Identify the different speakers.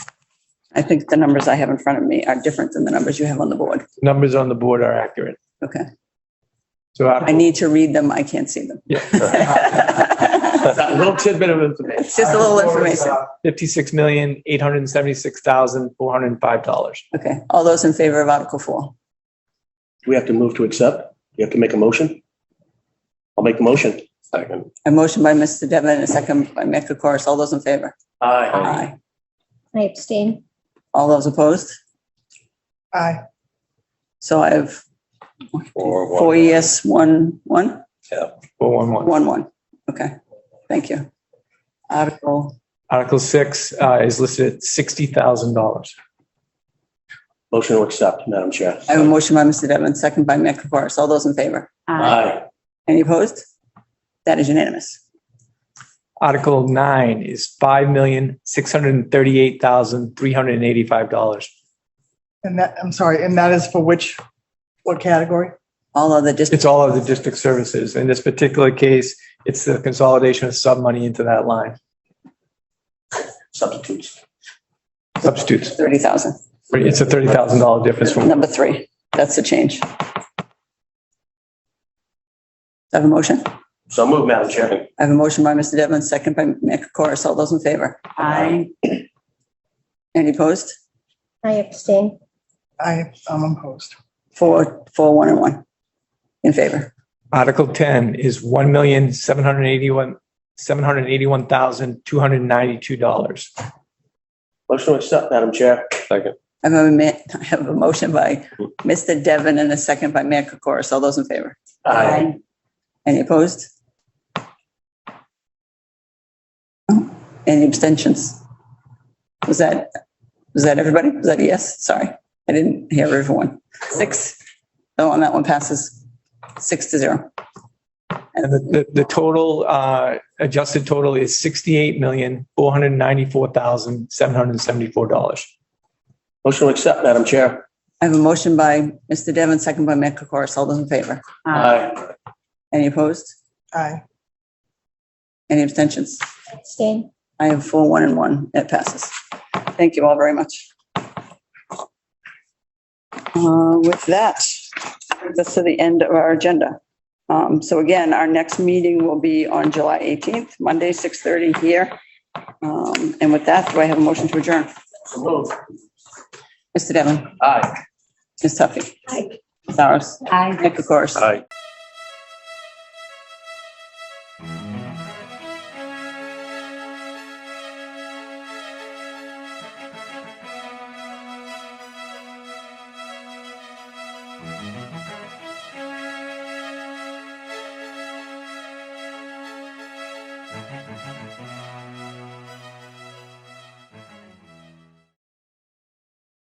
Speaker 1: I think the numbers I have in front of me are different than the numbers you have on the board.
Speaker 2: Numbers on the board are accurate.
Speaker 1: Okay.
Speaker 2: So
Speaker 1: I
Speaker 2: I,
Speaker 1: need to read them. I can't see them. It's
Speaker 2: a little tidbit of information. uh,
Speaker 1: just a little information.
Speaker 2: Fifty-six million, eight hundred and seventy-six thousand, four hundred and five dollars.
Speaker 1: Okay. All those in favor of Article Four?
Speaker 3: We have to move to accept. We have to make a motion. I'll make the motion. Second.
Speaker 1: A motion by Mr. Devon and a second by Mick Kokoris. All those in favor?
Speaker 3: Aye.
Speaker 4: I abstain.
Speaker 1: All those opposed?
Speaker 5: Aye.
Speaker 1: So I have
Speaker 6: Four, one.
Speaker 1: four yes, one, one,
Speaker 2: Four one one.
Speaker 1: one, one. Okay. Thank you. Article,
Speaker 2: Article six, uh, is listed at sixty thousand dollars.
Speaker 3: Motion to accept, Madam Chair.
Speaker 1: I have a motion by Mr. Devon, second by Mick Kokoris. All those in favor?
Speaker 3: Aye.
Speaker 1: Any opposed? That is unanimous.
Speaker 2: Article nine is five million, six hundred and thirty-eight thousand, three hundred and eighty-five dollars.
Speaker 5: And that, I'm sorry, and that is for which, what category?
Speaker 1: All other districts,
Speaker 2: It's all of the district services. In this particular case, it's the consolidation of sub money into that line.
Speaker 3: Substitutes.
Speaker 2: Substitutes.
Speaker 1: 30,000.
Speaker 2: It's a thirty thousand dollar difference from
Speaker 1: Number three, that's the change. Do I Have a motion?
Speaker 3: So move, Madam Chair.
Speaker 1: I have a motion by Mr. Devlin, second by Mick Corris. All those in favor?
Speaker 3: Aye.
Speaker 1: Any opposed?
Speaker 4: I abstain.
Speaker 5: I, I'm opposed.
Speaker 1: Four, four, one, and one. In favor.
Speaker 2: Article 10 is one million seven hundred eighty-one seven hundred eighty-one thousand two hundred ninety-two dollars
Speaker 3: Motion to accept, Madam Chair. Second.
Speaker 1: I have a, ma- I have a motion by Mr. Devon and a second by Mick Corris. All those in favor?
Speaker 3: Aye.
Speaker 1: Any opposed? No. Any abstentions? Was that, was that everybody? Was that a yes? Sorry, I didn't hear everyone. Six. So on that one passes six to zero.
Speaker 2: and the, the, the total uh adjusted total is sixty-eight million four hundred ninety-four thousand seven hundred seventy-four dollars
Speaker 3: Motion to accept, Madam Chair.
Speaker 1: I have a motion by Mr. Devon, second by Mick Kokoris. All those in favor?
Speaker 3: Aye.
Speaker 1: Any opposed?
Speaker 5: Aye.
Speaker 1: Any abstentions?
Speaker 4: Abstain.
Speaker 1: I have four, one, and one. It passes. Thank you all very much. Uh, With that, brings us to the end of our agenda. Um, So again, our next meeting will be on July 18th, Monday, 6:30 here. Um, And with that, do I have a motion to adjourn?
Speaker 3: So move.
Speaker 1: Mr. Devon,
Speaker 3: Aye.
Speaker 1: Ms. Tuffy,
Speaker 4: Aye.
Speaker 1: Ms. Saros,
Speaker 4: Aye.
Speaker 1: Nick Kokoris.
Speaker 3: Aye.